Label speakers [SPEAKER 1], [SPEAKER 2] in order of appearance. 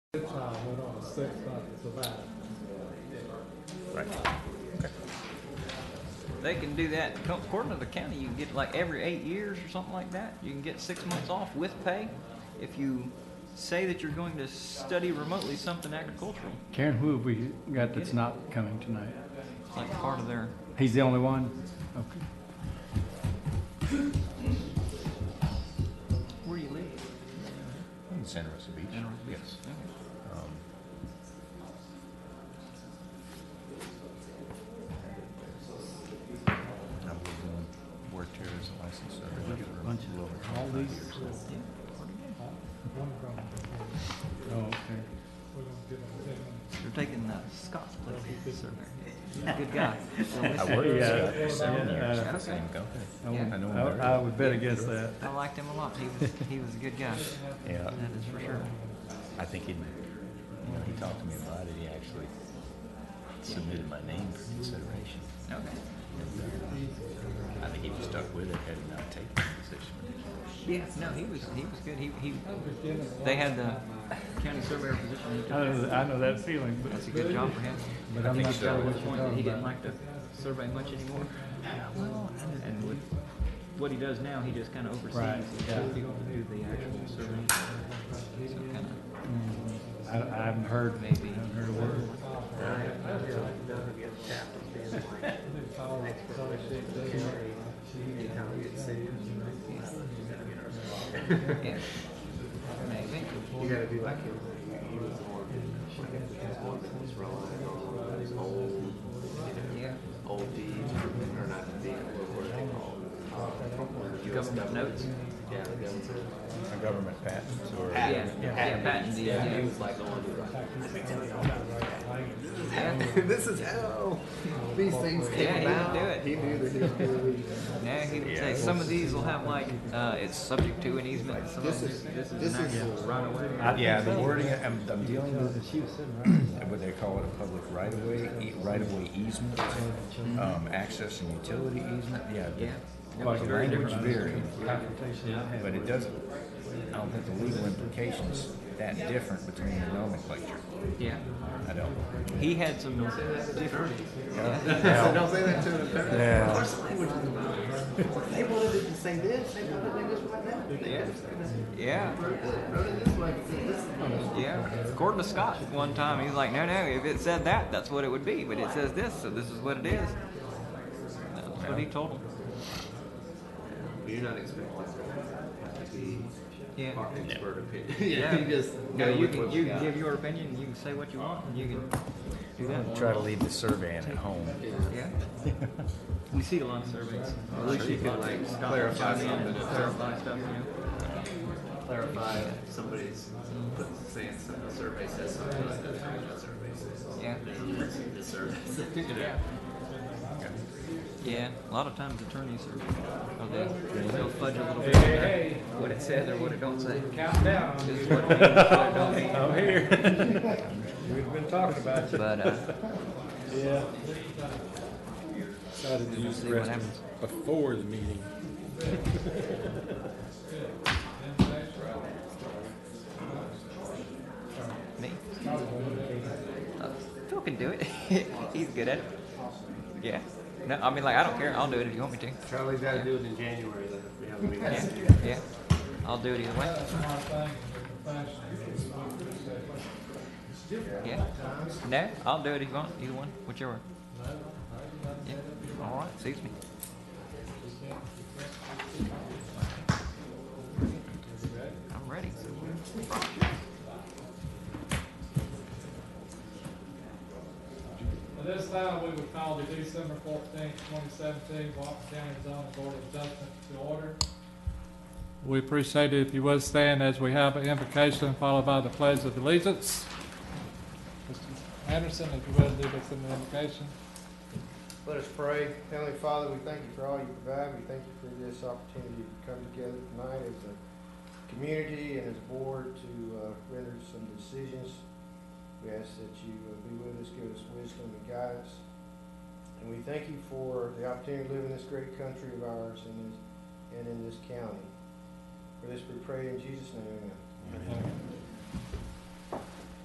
[SPEAKER 1] going on a six month sabbatical.
[SPEAKER 2] Right.
[SPEAKER 3] They can do that. Co- According to the county, you can get like every eight years or something like that. You can get six months off with pay if you say that you're going to study remotely something agricultural.
[SPEAKER 4] Karen, who have we got that's not coming tonight?
[SPEAKER 3] It's like part of their.
[SPEAKER 4] He's the only one? Okay.
[SPEAKER 3] Where you live?
[SPEAKER 2] In Santa Rosa Beach. Yes. I was doing work here as a licensed surveyor. Look at a bunch of all these.
[SPEAKER 1] One of them,
[SPEAKER 4] Oh, okay.
[SPEAKER 1] we're gonna get them ten minutes.
[SPEAKER 3] They're taking the Scott's place. Surveyor. Good guy.
[SPEAKER 2] I worked with
[SPEAKER 4] Yeah.
[SPEAKER 2] Scott for seven
[SPEAKER 4] Yeah.
[SPEAKER 2] years
[SPEAKER 3] Okay.
[SPEAKER 2] at the same company.
[SPEAKER 4] I
[SPEAKER 3] Yeah.
[SPEAKER 2] I know
[SPEAKER 4] would,
[SPEAKER 2] him very
[SPEAKER 4] I- I would bet against that.
[SPEAKER 3] I liked him a lot. He was he was a good guy.
[SPEAKER 2] Yeah,
[SPEAKER 3] That is for sure.
[SPEAKER 2] I think he, you know, he talked to me about it. He actually submitted my name for consideration.
[SPEAKER 3] Okay.
[SPEAKER 2] I think if you stuck with it, had he not taken the position.
[SPEAKER 3] Yeah. No, he was he was good. He he.
[SPEAKER 1] Just give them
[SPEAKER 3] They had the county surveyor position. He
[SPEAKER 4] I
[SPEAKER 3] took.
[SPEAKER 4] know, I know that feeling, but.
[SPEAKER 3] That's a good job for him.
[SPEAKER 4] But
[SPEAKER 3] I
[SPEAKER 4] I'm
[SPEAKER 3] think
[SPEAKER 4] not
[SPEAKER 3] he
[SPEAKER 4] sure
[SPEAKER 3] got to
[SPEAKER 4] what
[SPEAKER 3] the
[SPEAKER 4] you're
[SPEAKER 3] point that
[SPEAKER 4] talking
[SPEAKER 3] he didn't
[SPEAKER 4] about.
[SPEAKER 3] like the survey much anymore. And with what he does now, he just kind of oversees
[SPEAKER 4] Right,
[SPEAKER 3] and
[SPEAKER 4] yeah.
[SPEAKER 3] tells people to do the actual surveying. So kind of
[SPEAKER 4] I, I haven't heard, I
[SPEAKER 3] maybe.
[SPEAKER 4] haven't heard a word.
[SPEAKER 3] Yeah. Maybe.
[SPEAKER 5] You gotta do like him. He was the one, like, his one that was relying on one of those old, you
[SPEAKER 3] Yeah.
[SPEAKER 5] know, old deeds, or not the deed, but what are they called? Uh, US
[SPEAKER 3] Government notes.
[SPEAKER 5] Yeah, the government.
[SPEAKER 2] A government patent or?
[SPEAKER 3] Yeah. Yeah. Patent deed.
[SPEAKER 5] Yeah,
[SPEAKER 3] Yeah.
[SPEAKER 5] he was like the one who was like, let me tell you all
[SPEAKER 3] Yeah.
[SPEAKER 5] about it. This is how these things
[SPEAKER 3] Yeah, he
[SPEAKER 5] came
[SPEAKER 3] would
[SPEAKER 5] about.
[SPEAKER 3] do it.
[SPEAKER 5] He knew that he was doing
[SPEAKER 3] Yeah, he would say
[SPEAKER 2] Yeah.
[SPEAKER 3] some of these will have like uh, it's subject to an easement. and Some
[SPEAKER 5] This
[SPEAKER 3] of
[SPEAKER 5] is,
[SPEAKER 3] them
[SPEAKER 5] this
[SPEAKER 3] is an
[SPEAKER 5] is,
[SPEAKER 3] actual right away.
[SPEAKER 2] Yeah, the wording, I'm, I'm dealing with, what they call it, a public right-of-way, e- right-of-way easement, um, access and utility easement, yeah. the-
[SPEAKER 3] Yeah. It was
[SPEAKER 2] The
[SPEAKER 3] very
[SPEAKER 2] language
[SPEAKER 3] different.
[SPEAKER 2] varied,
[SPEAKER 3] Yeah.
[SPEAKER 2] but it doesn't, I don't think the legal implications that different between the nomenclature.
[SPEAKER 3] Yeah.
[SPEAKER 2] I don't.
[SPEAKER 3] He had some different.
[SPEAKER 5] don't say that to an attorney. Of course, the language is wrong. They wanted it to say this, they wanted it this right now. They
[SPEAKER 3] Yeah.
[SPEAKER 5] just said this.
[SPEAKER 3] Yeah.
[SPEAKER 5] Wrote it this way, said this.
[SPEAKER 3] Yeah, according to Scott, one time he was like, "No, no, if it said that, that's what it would be, but it says this, so this is what it is." That's what he told him.
[SPEAKER 5] You're not expected to be
[SPEAKER 3] Yeah.
[SPEAKER 5] our expert opinion. Yeah, you just.
[SPEAKER 3] no,
[SPEAKER 5] go
[SPEAKER 3] you
[SPEAKER 5] with
[SPEAKER 3] can
[SPEAKER 5] what
[SPEAKER 3] you
[SPEAKER 5] got.
[SPEAKER 3] can give your opinion, you can say what you want, and you can do that.
[SPEAKER 2] Try to leave the surveying at home.
[SPEAKER 3] Yeah. We see a lot of surveys.
[SPEAKER 5] At least you can like clarify something.
[SPEAKER 3] Clarify stuff, you know.
[SPEAKER 5] Clarify somebody's putting, saying something, the survey says something, like that's not what the survey says.
[SPEAKER 3] Yeah.
[SPEAKER 5] Then The survey says, you know.
[SPEAKER 3] Yeah. A lot of times attorneys are, are they, they'll fudge a little bit on
[SPEAKER 1] hey.
[SPEAKER 3] what it says or what it don't say.
[SPEAKER 1] Countdown.
[SPEAKER 3] Just what it means, what it don't mean.
[SPEAKER 1] Oh,
[SPEAKER 4] I'm here.
[SPEAKER 1] We've been talking about you.
[SPEAKER 3] But uh,
[SPEAKER 1] Yeah.
[SPEAKER 6] Decided to
[SPEAKER 3] we'll
[SPEAKER 6] use
[SPEAKER 3] see
[SPEAKER 6] the
[SPEAKER 3] what
[SPEAKER 6] restroom
[SPEAKER 3] happens.
[SPEAKER 6] before the meeting.
[SPEAKER 3] Me? Uh, Phil can do it. He's good at it. Yeah. No, I mean, like, I don't care. I'll do it if you want me to.
[SPEAKER 5] Charlie's gotta do it in January then, we have a
[SPEAKER 3] Yeah.
[SPEAKER 5] meeting.
[SPEAKER 3] Yeah. I'll do it either way.
[SPEAKER 1] That's my thing, with the fashion.
[SPEAKER 3] Yeah. No, I'll do it if you want. Either one, whichever. Yeah. All right. Suits me. I'm ready.
[SPEAKER 1] At this time, we would call the December fourteenth, twenty seventeen, Walker County Zoning Board of Adjustment to order. We appreciate it if you would stand as we have an invocation followed by the pledge of allegiance. Mr. Anderson, if you would lead us in the invocation.
[SPEAKER 7] Let us pray. Heavenly Father, we thank you for all you provide. We thank you for this opportunity to come together tonight as a community and as a board to uh, render some decisions. We ask that you uh, be with us, give us wisdom and guidance. And we thank you for the opportunity to live in this great country of ours and in, and in this county. For this we pray in Jesus' name, amen.
[SPEAKER 1] Amen.